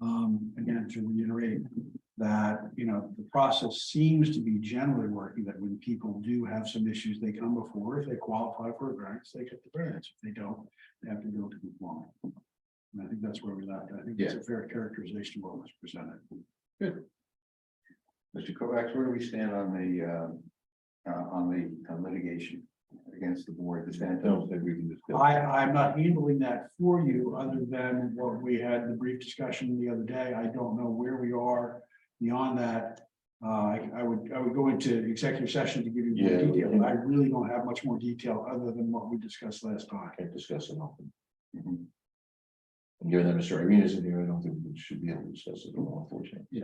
Um, again, to reiterate that, you know, the process seems to be generally working, that when people do have some issues, they come before, if they qualify for a variance, they get the variance. If they don't, they have to go to conforming. And I think that's where we left. I think that's a fair characterization of what was presented. Mr. Kovacs, where do we stand on the, uh, uh, on the uh, litigation against the board, the stand that we can discuss? I, I'm not handling that for you, other than what we had the brief discussion the other day. I don't know where we are beyond that. Uh, I, I would, I would go into executive session to give you more Yeah. detail, but I really don't have much more detail other than what we discussed last time. can't discuss it often. Mhm. And given that Mr. Arena isn't here, I don't think we should be able to discuss it at all, unfortunately.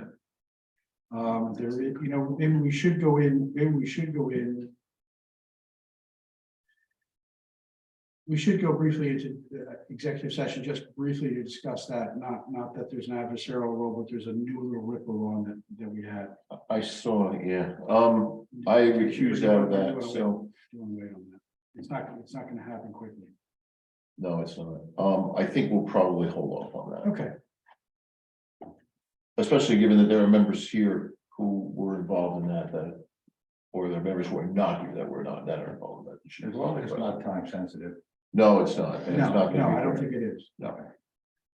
Um, there, is- you know, maybe we should go in, maybe we should go in. We should go briefly into uh, executive session, just briefly to discuss that, not, not that there's an adversarial role, but there's a new little ripple on that, that we had. I saw, yeah, um, I recused out of that, so, Don't wait on that. It's not, it's not gonna happen quickly. no, it's not. Um, I think we'll probably hold off on that, Okay, especially given that there are members here who were involved in that, that. Or there are members who are not here that were not, that are involved in that. As long as it's not time sensitive. No, it's not. and it's no, no, not gonna be I don't very- think it is.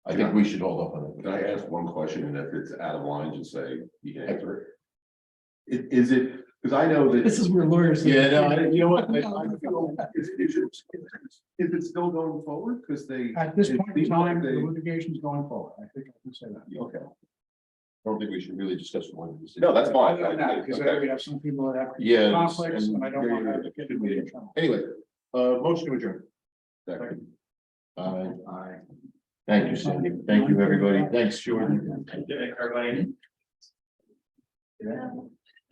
I think we should hold off on it. Can I ask one question, and if it's out of line, just say you can answer it? I- Is it, because I know that. This is where lawyers. Yeah, no, I- you know what? I I- I- feel- Is is it is it still going forward? Because they, At this It point in seems like time, the they- litigation's going forward. I think I can say that. okay, I don't think we should really discuss one of these. no, that's fine. Because I Okay. would have some people that have Yeah. conflicts and I don't want to have to get in Anyway, trouble. uh, motion to adjourn. Second. Uh, Aye. thank you, Sandy. Thank you, everybody. Thanks, Jordan.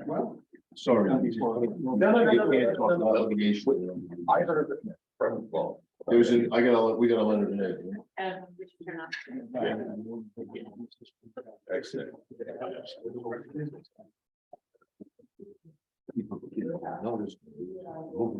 Well, Sorry. Not before. no, no, no, no, no, no. Obligation. I heard it from, well. There's an, I got a, we got a letter today. Um, which we turn off. Excellent. Notice.